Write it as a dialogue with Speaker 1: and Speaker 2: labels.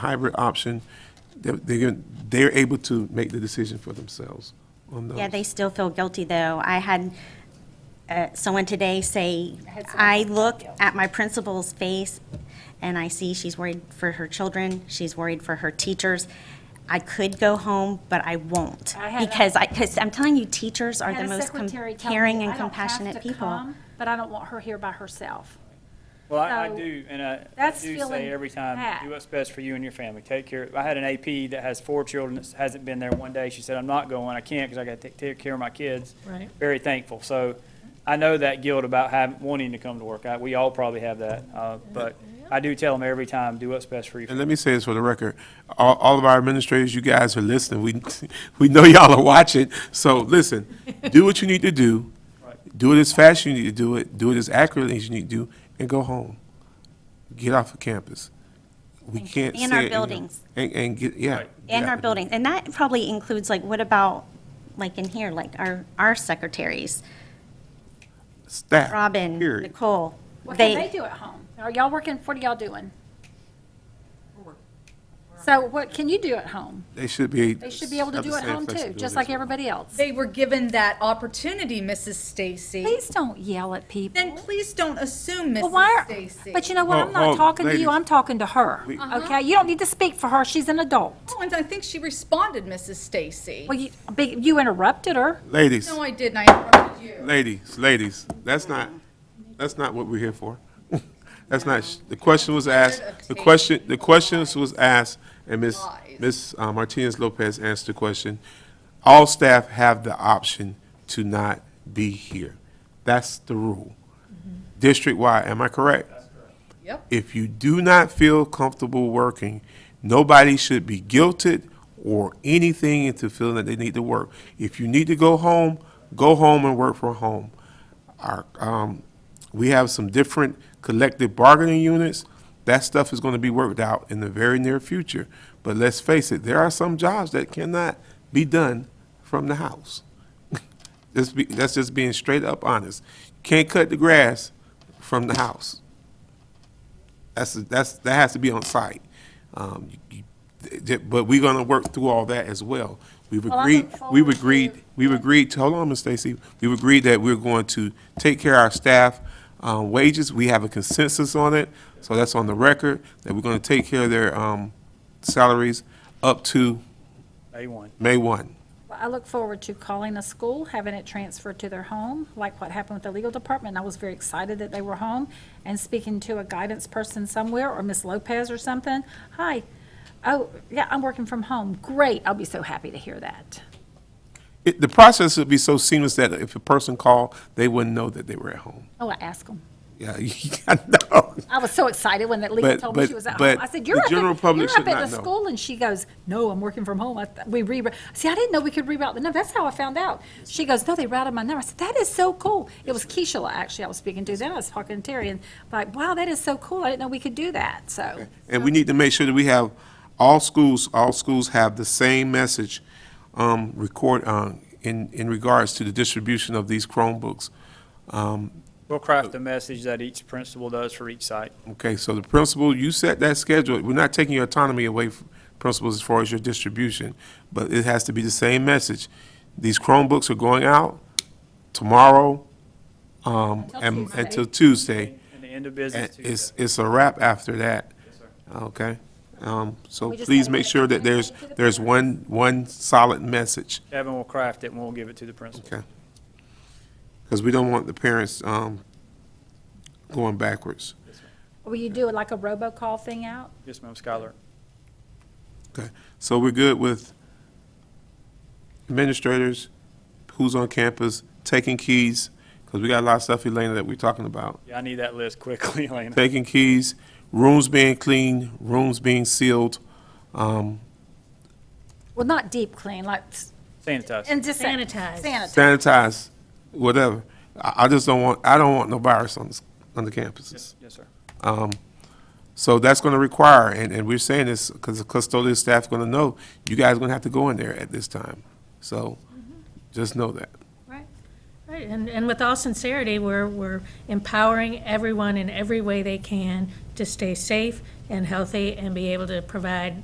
Speaker 1: hybrid option, they're, they're, they're able to make the decision for themselves on those.
Speaker 2: Yeah, they still feel guilty, though. I had uh, someone today say,
Speaker 3: had someone
Speaker 2: I
Speaker 3: tell
Speaker 2: look
Speaker 3: you.
Speaker 2: at my principal's face, and I see she's worried for her children, she's worried for her teachers. I could go home, but I won't,
Speaker 3: I had a-
Speaker 2: because I, because I'm telling you, teachers are
Speaker 3: Had
Speaker 2: the
Speaker 3: a
Speaker 2: most com-
Speaker 3: secretary tell me,
Speaker 2: caring
Speaker 3: "I
Speaker 2: and
Speaker 3: don't have
Speaker 2: compassionate
Speaker 3: to
Speaker 2: people.
Speaker 3: come, But I don't want her here by herself.
Speaker 4: Well, I, I
Speaker 3: So,
Speaker 4: do, and I, I
Speaker 3: that's
Speaker 4: do
Speaker 3: feeling
Speaker 4: say every time,
Speaker 3: bad.
Speaker 4: do what's best for you and your family. Take care. I had an AP that has four children that hasn't been there one day. She said, "I'm not going. I can't because I got to take, take care of my kids."
Speaker 5: Right.
Speaker 4: Very thankful. So, I know that guilt about having wanting to come to work. I, we all probably have that, uh, but I do tell them every time, do what's best for you.
Speaker 1: And let me say this for the record, all, all of our administrators, you guys are listening, we, we know y'all are watching, so listen, do what you need to do, do it as fast as you need to do it, do it as accurately as you need to do, and go home. Get off of campus. We can't say.
Speaker 2: And our
Speaker 1: it enough.
Speaker 2: buildings.
Speaker 1: And, and, get- yeah.
Speaker 4: Right.
Speaker 2: In
Speaker 1: yeah.
Speaker 2: our buildings, and that probably includes, like, what about, like, in here, like, our, our secretaries,
Speaker 1: Staff.
Speaker 2: Robin,
Speaker 1: period.
Speaker 2: Nicole.
Speaker 3: What can they do at home? Are y'all working, what are y'all doing? So what can you do at home?
Speaker 1: They should be.
Speaker 3: They should be able to
Speaker 1: have the
Speaker 3: do at
Speaker 1: same
Speaker 3: home too,
Speaker 1: flexibility
Speaker 3: just
Speaker 1: as
Speaker 3: like
Speaker 1: well.
Speaker 3: everybody else.
Speaker 5: They were given that opportunity, Mrs. Stacy.
Speaker 3: Please don't yell at people.
Speaker 5: Then please don't assume,
Speaker 3: Well, why
Speaker 5: Mrs.
Speaker 3: are-
Speaker 5: Stacy.
Speaker 3: But you know what?
Speaker 1: Hold-
Speaker 3: I'm not
Speaker 1: hold,
Speaker 3: talking to
Speaker 1: ladies.
Speaker 3: you. I'm talking to her.
Speaker 1: We-
Speaker 5: Uh-huh.
Speaker 3: Okay? You don't need to speak for her. She's an adult.
Speaker 5: Oh, and I think she responded, Mrs. Stacy.
Speaker 3: Well, you, big- you interrupted her.
Speaker 1: Ladies.
Speaker 5: No, I didn't, I interrupted you.
Speaker 1: Ladies, ladies, that's not, that's not what we're here for. That's not, sh- the question was asked, the question, the questions was asked, and Ms. Ms. Martinez Lopez answered the question. All staff have the option to not be here. That's the rule. District-wide, am I correct?
Speaker 5: Yep.
Speaker 1: If you do not feel comfortable working, nobody should be guilted or anything into feeling that they need to work. If you need to go home, go home and work from home. Our, um, we have some different collective bargaining units. That stuff is going to be worked out in the very near future. But let's face it, there are some jobs that cannot be done from the house. That's be, that's just being straight up honest. Can't cut the grass from the house. That's, that's, that has to be on site. Um, you- you- th- But we're gonna work through all that as well. We've
Speaker 3: I
Speaker 1: agreed,
Speaker 3: look forward
Speaker 1: we've agreed,
Speaker 3: to-
Speaker 1: we've agreed, to- hold on, Ms. Stacy, we've agreed that we're going to take care of our staff uh, wages. We have a consensus on it, so that's on the record, that we're gonna take care of their um, salaries up to
Speaker 4: Day one.
Speaker 1: May one.
Speaker 3: Well, I look forward to calling the school, having it transferred to their home, like what happened with the legal department. I was very excited that they were home and speaking to a guidance person somewhere or Miss Lopez or something. Hi. Oh, yeah, I'm working from home. Great. I'll be so happy to hear that.
Speaker 1: It- The process would be so seamless that if a person called, they wouldn't know that they were at home.
Speaker 3: Oh, I asked them.
Speaker 1: Yeah, I know.
Speaker 3: I was so excited when that legal
Speaker 1: But-
Speaker 3: told me she
Speaker 1: but-
Speaker 3: was at
Speaker 1: but
Speaker 3: home. I said,
Speaker 1: the
Speaker 3: "You're up,
Speaker 1: general
Speaker 3: at,
Speaker 1: public
Speaker 3: you're up
Speaker 1: should
Speaker 3: at
Speaker 1: not
Speaker 3: the
Speaker 1: know.
Speaker 3: school," and she goes, "No, I'm working from home. I th- we re- see. I didn't know we could reroute the number. That's how I found out." She goes, "No, they routed my number." I said, "That is so cool." It was Keisha actually. I was speaking to then. I was talking to Terry and like, "Wow, that is so cool. I didn't know we could do that." So
Speaker 1: And we need to make sure that we have, all schools, all schools have the same message um, record, uh, in, in regards to the distribution of these Chromebooks. Um,
Speaker 4: We'll craft a message that each principal does for each site.
Speaker 1: Okay, so the principal, you set that schedule. We're not taking your autonomy away from principals as far as your distribution, but it has to be the same message. These Chromebooks are going out tomorrow um, and
Speaker 3: Tuesday.
Speaker 1: until Tuesday.
Speaker 4: And the end of
Speaker 1: And
Speaker 4: business
Speaker 1: it's,
Speaker 4: Tuesday.
Speaker 1: it's a wrap after that.
Speaker 4: sir.
Speaker 1: Okay? Um, So
Speaker 3: We just
Speaker 1: please
Speaker 3: gotta
Speaker 1: make
Speaker 3: get it
Speaker 1: sure that there's,
Speaker 3: communicated to the
Speaker 1: there's one, one solid message,
Speaker 4: Kevin will craft it and we'll give it to the principal.
Speaker 1: okay? Because we don't want the parents um, going backwards.
Speaker 3: will you do like a robocall thing out?
Speaker 4: Yes, ma'am, Skylar.
Speaker 1: Okay, so we're good with administrators, who's on campus, taking keys, because we got a lot of stuff, Elena, that we're talking about.
Speaker 4: Yeah, I need that list quickly, Elena.
Speaker 1: Taking keys, rooms being cleaned, rooms being sealed. um,
Speaker 3: Well, not deep clean, like s-
Speaker 4: Sanitize.
Speaker 3: and just
Speaker 5: Sanitize.
Speaker 3: Sanitize.
Speaker 1: sanitize, whatever. I, I just don't want, I don't want no virus on, this- on the campuses.
Speaker 4: Yes, yes, sir.
Speaker 1: So that's gonna require, and, and we're saying this, because the custodial staff's gonna know, you guys gonna have to go in there at this time. So, just know that.
Speaker 3: Right.
Speaker 6: Right, and, and with all sincerity, we're, we're empowering everyone in every way they can to stay safe and healthy and be able to provide